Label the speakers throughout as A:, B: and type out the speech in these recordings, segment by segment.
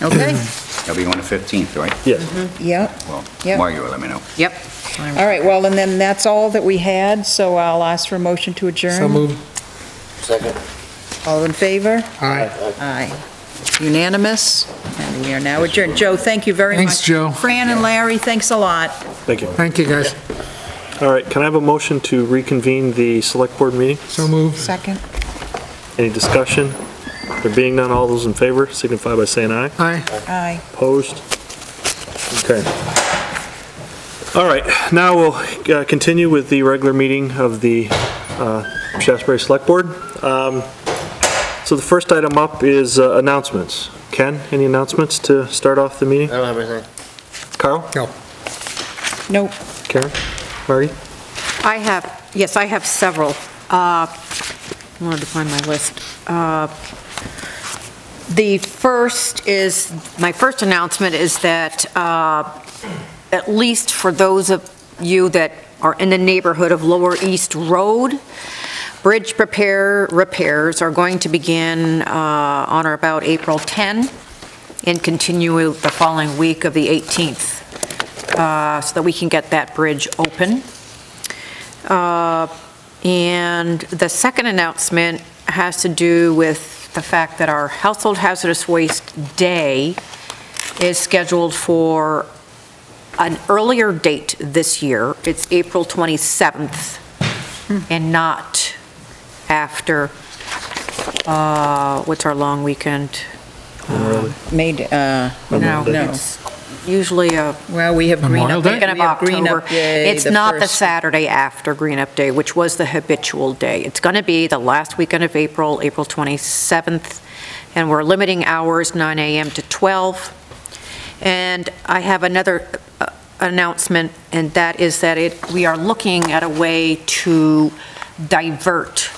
A: Okay,
B: That'll be on the 15th, right?
C: Yes.
A: yep,
B: Well,
A: Yeah.
B: Margie will let me know.
D: Yep.
A: all right, well, and then that's all that we had, so I'll ask for a motion to adjourn.
C: So moved.
E: Second.
A: All in favor?
C: Aye.
A: Aye. Unanimous, and we are now adjourned. Joe, thank you very much.
C: Thanks, Joe.
A: Fran and Larry, thanks a lot.
F: Thank you.
C: Thank you, guys.
F: All right, can I have a motion to reconvene the select board meeting?
C: So moved.
A: Second.
F: Any discussion? There being none, all those in favor signify by saying aye.
C: Aye.
A: Aye.
F: Opposed? Okay. All right, now we'll uh, continue with the regular meeting of the uh, Shasberry Select Board. Um, So the first item up is uh, announcements. Ken, any announcements to start off the meeting?
E: I don't have anything.
F: Carl?
A: Nope.
F: Karen? Margie?
D: I have, yes, I have several. Uh, I Wanted to find my list. Uh, The first is, my first announcement is that, uh, at least for those of you that are in the neighborhood of Lower East Road, bridge repair, repairs are going to begin uh, on or about April 10 and continue the following week of the 18th, uh, so that we can get that bridge open. Uh, And the second announcement has to do with the fact that our Household Hazardous Waste Day is scheduled for an earlier date this year. It's April 27th and not after, uh, what's our long weekend?
A: Made, uh,
D: No,
A: No.
D: it's usually a
A: well, we have Green
C: Memorial
A: Up.
C: Day?
D: Green Up
A: We have Green Up
D: October.
A: Day,
D: It's not the
A: first.
D: Saturday after Green Up Day, which was the habitual day. It's going to be the last weekend of April, April 27th, and we're limiting hours, 9 a.m. to 12. And I have another uh, announcement, and that is that it, we are looking at a way to divert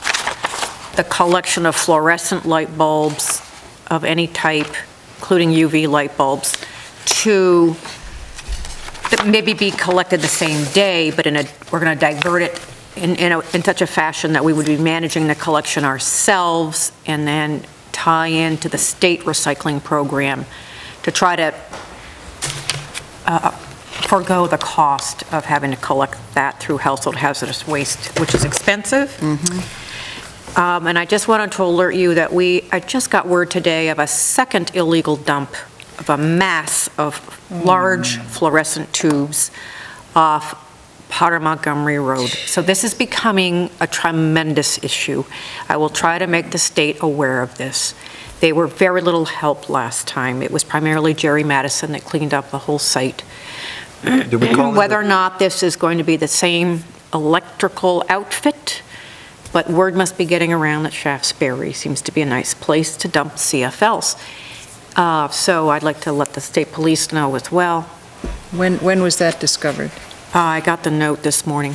D: the collection of fluorescent light bulbs of any type, including UV light bulbs, to that maybe be collected the same day, but in a, we're going to divert it in, in a- in such a fashion that we would be managing the collection ourselves and then tie into the state recycling program to try to uh, forego the cost of having to collect that through household hazardous waste, which is expensive. Um, And I just wanted to alert you that we, I just got word today of a second illegal dump of a mass of large
F: Mm.
D: fluorescent tubes off Potter Montgomery Road. So this is becoming a tremendous issue. I will try to make the state aware of this. They were very little help last time. It was primarily Jerry Madison that cleaned up the whole site.
F: Did we call in the-
D: Whether or not this is going to be the same electrical outfit, but word must be getting around that Shaftesbury seems to be a nice place to dump CFLs. Uh, So I'd like to let the state police know as well.
A: When, when was that discovered?
D: Uh, I got the note this morning.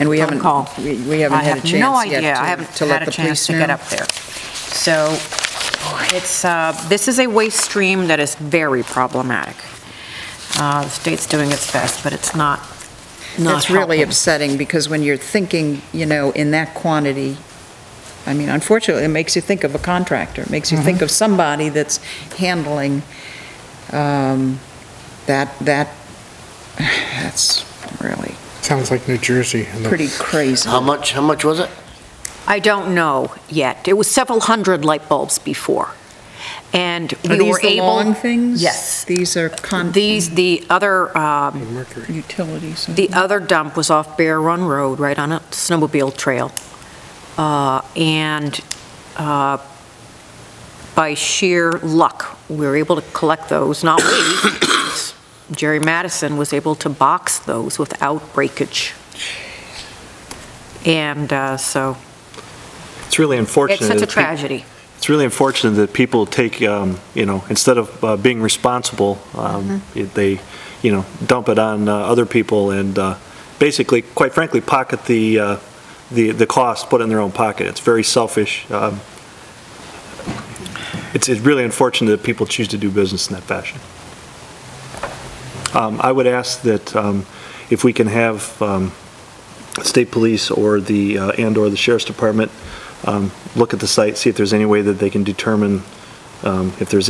A: And we
D: Phone
A: haven't,
D: call.
A: we we haven't had a chance yet to
D: I have no idea, I haven't
A: to let
D: had a
A: the police
D: chance to get
A: know.
D: up there. So it's, uh, this is a waste stream that is very problematic. Uh, The state's doing its best, but it's not, not
A: That's really
D: helping.
A: upsetting, because when you're thinking, you know, in that quantity, I mean, unfortunately, it makes you think of a contractor, it makes you think of somebody that's handling um, that, that, that's really
C: Sounds like New Jersey.
A: pretty crazy.
D: Um,
E: How much, how much was it?
D: I don't know yet. It was several hundred light bulbs before, and
A: Are
D: we
A: these
D: were
A: the
D: able...
A: long things?
D: Yes.
A: These are con,
D: These, the other, um,
C: Mercury.
A: utilities.
D: the other dump was off Bear Run Road, right on a snowmobile trail. Uh, And uh, by sheer luck, we were able to collect those, not we. Jerry Madison was able to box those without breakage. And uh, so,
F: It's really unfortunate.
D: it's such a
F: that peop-
D: tragedy.
F: It's really unfortunate that people take, um, you know, instead of uh, being responsible, um, it- they, you know, dump it on uh, other people and uh, basically, quite frankly, pocket the, uh, the the cost, put it in their own pocket. It's very selfish. Um, It's it's really unfortunate that people choose to do business in that fashion. Um, I would ask that um, if we can have um, state police or the, uh, and/or the sheriff's department um, look at the site, see if there's any way that they can determine um, if there's